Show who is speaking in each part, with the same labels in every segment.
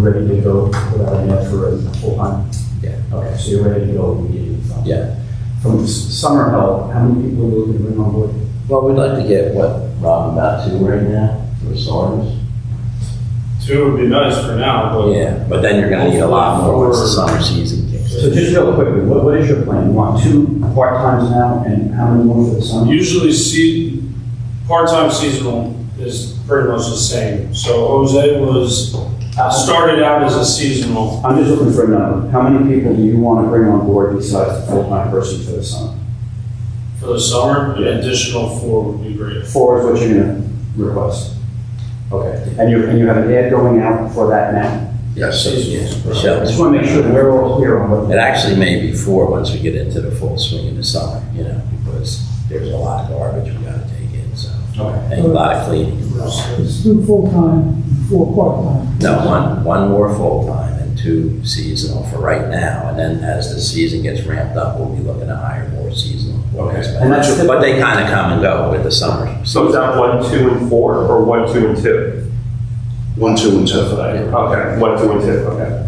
Speaker 1: ready to go without an ad for a full-time?
Speaker 2: Yeah.
Speaker 1: Okay, so you're ready to go immediately? so.
Speaker 2: Yeah.
Speaker 1: From s- summer help, how many people will we bring on board?
Speaker 2: Well, we'd like to get what, Rob, about two right now, for starters?
Speaker 3: Two would be nice for now, but
Speaker 2: Oh, Yeah, but then you're gonna need a lot more once the summer season kicks in.
Speaker 1: So just real quickly, what, what is your plan? You want two part-times now and how many more for the summer?
Speaker 3: usually se- part-time seasonal is pretty much the same. So Jose was, started out as a seasonal.
Speaker 1: I'm just looking for a number. How many people do you want to bring on board besides the full-time person for the summer?
Speaker 3: For the summer, an additional four would be great.
Speaker 1: Four is what you're gonna request. Okay, and you, and you have an ad going out for that now?
Speaker 2: Yeah, so, yeah,
Speaker 1: I just
Speaker 2: Michelle's-
Speaker 1: wanna make sure that we're all clear on what.
Speaker 2: It actually may be four once we get into the full swing of the summer, you know, because there's a lot of garbage we gotta take in, so,
Speaker 1: Okay.
Speaker 2: and a lot of cleaning.
Speaker 4: It's two full-time, four part-time.
Speaker 2: No, one, one more full-time and two seasonal for right now, and then as the season gets ramped up, we'll be looking to hire more seasonal. workers.
Speaker 1: And that's your-
Speaker 2: But they kinda come and go with the summer.
Speaker 5: So is that one, two, and four, or one, two, and two?
Speaker 6: One, two, and two.
Speaker 5: Okay, one, two, and two, okay.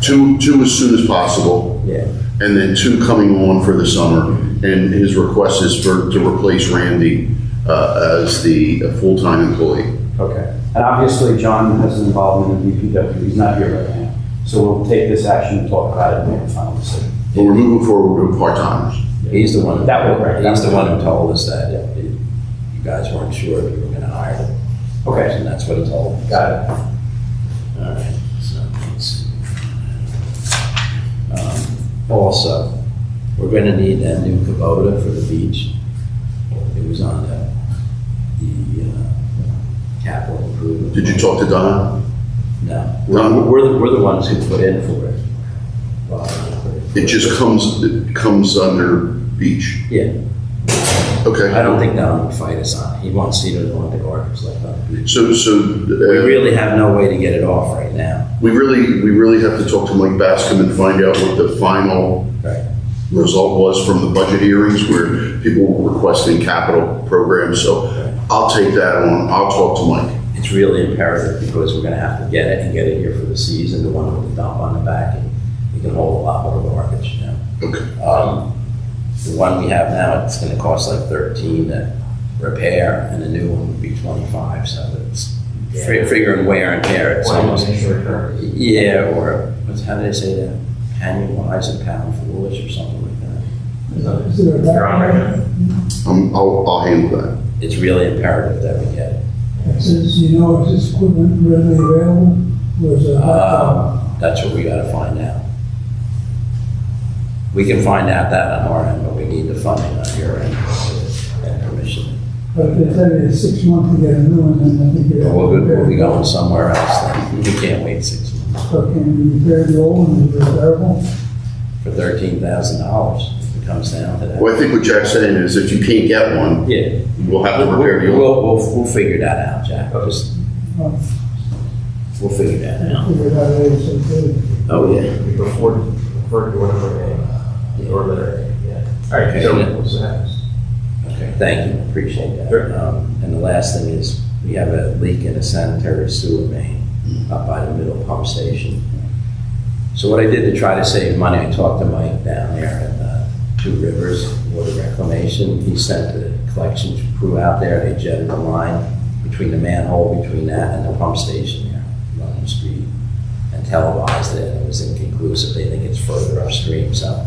Speaker 6: Two, two as soon as possible,
Speaker 2: Yeah.
Speaker 6: and then two coming on for the summer. And his request is for, to replace Randy uh, as the full-time employee.
Speaker 1: Okay, and obviously John has an involvement in DPW, he's not here right now. So we'll take this action and talk about it and make a final decision.
Speaker 6: But we're moving forward with part-timers.
Speaker 2: He's the one.
Speaker 1: That will break.
Speaker 2: He's the one who told us that uh, you you guys weren't sure if you were gonna hire him.
Speaker 1: Okay,
Speaker 2: And that's what he told. me.
Speaker 1: got it.
Speaker 2: All right. So let's see. Um, Also, we're gonna need that new Kubota for the beach. It was on the, the uh, capital improvement.
Speaker 6: Did you talk to Don?
Speaker 2: No. We're, we're the, we're the ones who put in for it. Well, I put in for
Speaker 6: It just comes, it comes under beach.
Speaker 2: Yeah. I
Speaker 6: Okay.
Speaker 2: don't think Don would fight us on it. He wants to either want the garbage left on the beach.
Speaker 6: So, so
Speaker 2: We
Speaker 6: uh,
Speaker 2: really have no way to get it off right now.
Speaker 6: we really, we really have to talk to Mike Bascom and find out what the final
Speaker 2: Right.
Speaker 6: result was from the budget hearings where people were requesting capital programs. So I'll take that on. I'll talk to Mike.
Speaker 2: It's really imperative because we're gonna have to get it and get it here for the season, the one with the dump on the back, and we can hold a lot more garbage now.
Speaker 6: Okay.
Speaker 2: Um, The one we have now, it's gonna cost like thirteen to repair, and the new one would be twenty-five, so it's fi- figuring wear and tear, it's almost. Yeah, or, what's, how do they say that? Annualize and pound foolish or something like that.
Speaker 4: Is there a background?
Speaker 6: Um, I'll, I'll handle that.
Speaker 2: It's really imperative that we get it.
Speaker 4: Since you know, is this equipment readily available? Or is it?
Speaker 2: Um, That's what we gotta find out. We can find out that on our end, but we need the funding on your end and permission.
Speaker 4: But if they tell you it's six months to get a new one, then I think you're.
Speaker 2: But Oh, We'll, we'll be going somewhere else then. We can't wait six months
Speaker 4: So can you repair the old one, is it repairable?
Speaker 2: for thirteen thousand dollars if it comes down to that.
Speaker 6: Well, I think what Jack's saying is if you can't get one,
Speaker 2: Yeah.
Speaker 6: we'll have to
Speaker 2: We'll,
Speaker 6: repair the old.
Speaker 2: we'll, we'll, we'll figure that out, Jack. Just,
Speaker 4: Well,
Speaker 2: we'll figure that out.
Speaker 4: Figure it out later, so good.
Speaker 2: Oh, yeah.
Speaker 7: before, refer to whatever name, or letter, eh? yeah. All right,
Speaker 2: Okay.
Speaker 7: so, so that's-
Speaker 2: Okay, thank you, appreciate that.
Speaker 7: Sure.
Speaker 2: Um, And the last thing is, we have a leak in a sanitary sewer main up by the middle pump station. So what I did to try to save money, I talked to Mike down there at uh, Two Rivers Water Reclamation. He sent the collection crew out there, they jetted the line between the manhole, between that and the pump station there along the street and televised it, and it was inconclusive. They think it's further upstream, so.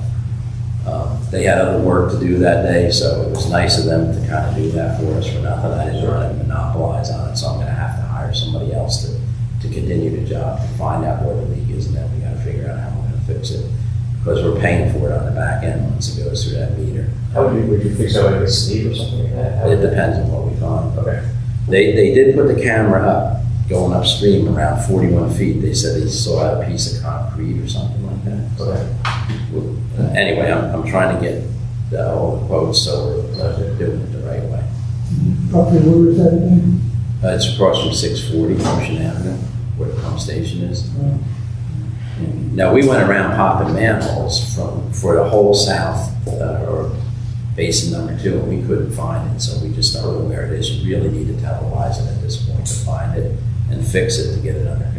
Speaker 2: Um, They had other work to do that day, so it was nice of them to kind of do that for us for nothing. I didn't want to monopolize on it, so I'm gonna have to hire somebody else to, to continue the job, to find out where the leak is, and then we gotta figure out how we're gonna fix it. Because we're paying for it on the back end once it goes through that meter.
Speaker 7: how would you, would you fix that like a sleeve or something like that? How
Speaker 2: It
Speaker 7: would-
Speaker 2: depends on what we find.
Speaker 7: Okay.
Speaker 2: They, they did put the camera up, going upstream around forty-one feet. They said they saw a piece of concrete or something like that. So,
Speaker 7: Okay.
Speaker 2: uh, Anyway, I'm, I'm trying to get uh, the whole quote, so we're uh, doing it the right way.
Speaker 4: Property, where is that again?
Speaker 2: Uh, It's across from six forty Ocean Avenue, where the pump station is. Now, we went around popping manholes from, for the whole south, uh, or basin number two, and we couldn't find it, so we just don't know where it is. You really need to televise it at this point to find it and fix it to get it under